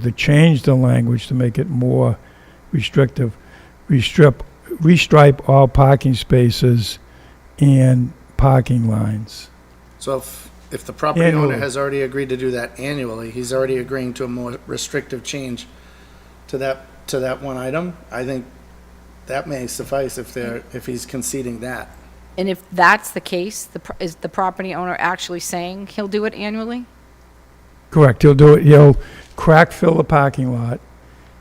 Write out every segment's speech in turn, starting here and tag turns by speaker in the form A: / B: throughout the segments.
A: to change the language to make it more restrictive. Restrip, restripe all parking spaces and parking lines.
B: So if, if the property owner
A: Annually.
B: has already agreed to do that annually, he's already agreeing to a more restrictive change to that, to that one item, I think that may suffice if they're, if he's conceding that.
C: And if that's the case, the pro- is the property owner actually saying he'll do it annually?
A: Correct, he'll do it, he'll crack fill the parking lot,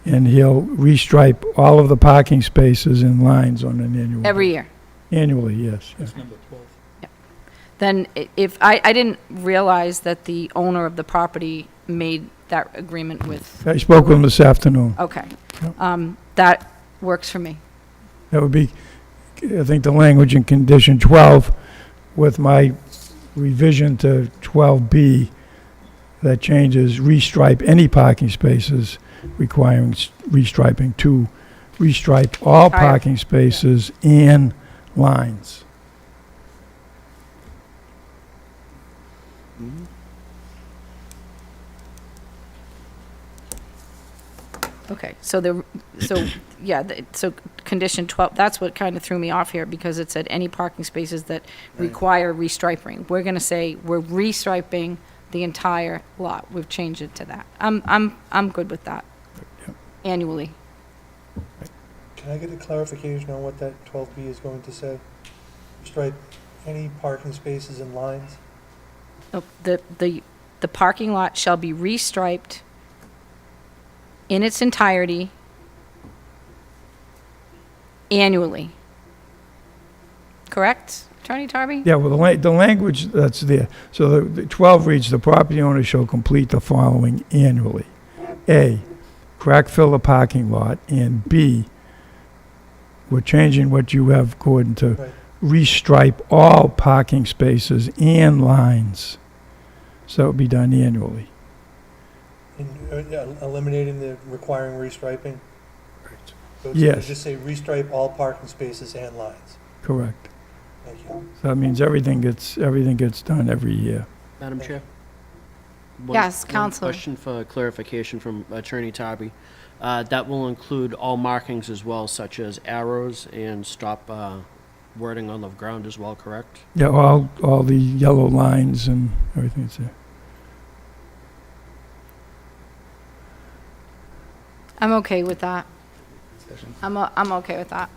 A: and he'll restripe all of the parking spaces and lines on an annual.
C: Every year?
A: Annually, yes. yeah.
C: Then i- if, I, I didn't realize that the owner of the property made that agreement with,
A: I spoke with him this afternoon.
C: okay.
A: Yep.
C: Um, That works for me.
A: That would be, I think, the language in condition 12 with my revision to 12B that changes restripe any parking spaces requiring s- restriping to restripe all
C: Entire-
A: parking spaces and lines.
C: Okay, so the, so, yeah, the- so condition 12, that's what kind of threw me off here, because it said any parking spaces that require restriping. We're going to say we're restriping the entire lot. We've changed it to that. I'm, I'm, I'm good with that. Annually.
D: Can I get a clarification on what that 12B is going to say? Strike any parking spaces and lines?
C: Oh, The, the, the parking lot shall be restriped in its entirety annually. Correct, Attorney Tarby?
A: Yeah, well, the la- the language that's there, so the- the 12 reads, "The property owner shall complete the following annually. A, crack fill the parking lot, and B, we're changing what you have, Gordon, to
D: Right.
A: restripe all parking spaces and lines. So it would be done annually.
D: In uh, yeah, eliminating the requiring restriping? So it's-
A: Yes.
D: Just say restripe all parking spaces and lines.
A: Correct.
D: Thank you.
A: So that means everything gets, everything gets done every year.
E: Madam Chair? One-
C: Yes,
E: one
C: Counselor.
E: Question for clarification from Attorney Tarby. Uh, That will include all markings as well, such as arrows and stop uh, wording on the ground as well, correct?
A: Yeah, all, all the yellow lines and everything that's there.
C: I'm okay with that. I'm, o- I'm okay with that.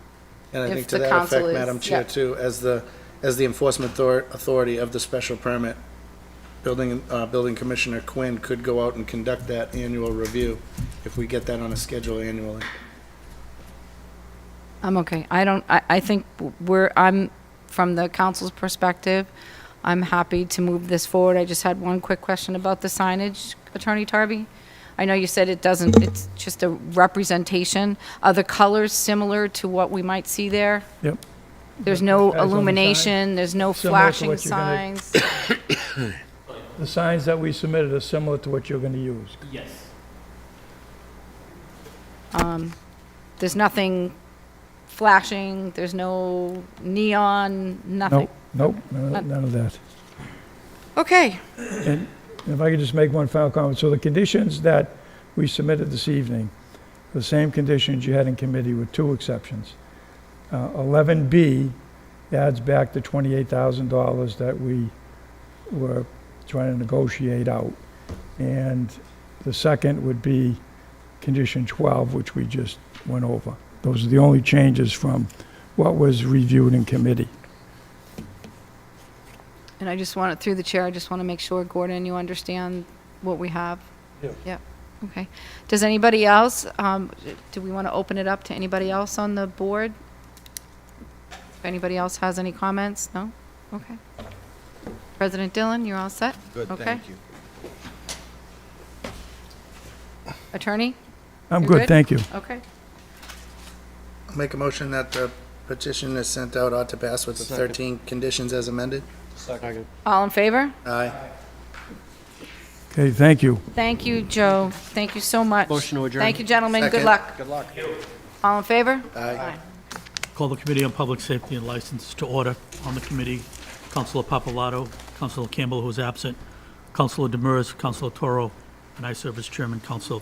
B: And I
C: If
B: think to
C: the
B: that
C: council
B: effect,
C: is-
B: Madam Chair,
C: yeah.
B: too, as the, as the enforcement author- authority of the special permit, building, uh, building commissioner Quinn could go out and conduct that annual review if we get that on a schedule annually.
C: I'm okay. I don't, I, I think we're, I'm, from the council's perspective, I'm happy to move this forward. I just had one quick question about the signage, Attorney Tarby. I know you said it doesn't, it's just a representation. Are the colors similar to what we might see there?
A: Yep.
C: There's
A: Guys on the
C: no
A: sign?
C: illumination, there's no
A: Similar to
C: flashing
A: what you're gonna-
C: signs.
A: The signs that we submitted are similar to what you're going to use.
C: There's nothing flashing, there's no neon, nothing.
A: Nope, nope, none of- none of that.
C: Okay.
A: And if I could just make one final comment, so the conditions that we submitted this evening, the same conditions you had in committee with two exceptions. Uh, Eleven B adds back the twenty-eight thousand dollars that we were trying to negotiate out. And the second would be condition twelve, which we just went over. Those are the only changes from what was reviewed in committee.
C: And I just want it through the chair, I just want to make sure, Gordon, you understand what we have.
D: Yeah.
C: Yep, okay. Does anybody else, um, do we want to open it up to anybody else on the board? If anybody else has any comments? No? Okay. President Dillon, you're all set? Good, thank you. Attorney?
A: I'm
C: You're
A: good,
C: good?
A: thank you.
C: Okay.
B: Make a motion that the petition is sent out ought to pass with the
E: Second.
B: 13 conditions as amended?
E: Second.
C: All in favor?
B: Aye.
A: Okay, thank you.
C: Thank you, Joe. Thank you so much.
E: Motion to adjourn.
C: Thank you, gentlemen. Good
B: Second.
C: luck.
B: Good luck.
C: All in favor?
B: Aye.
F: Call the Committee on Public Safety and License to order. On the committee, Councilor Papalato, Councilor Campbell, who is absent, Councilor Demers, Councilor Toro, and I serve as Chairman, Council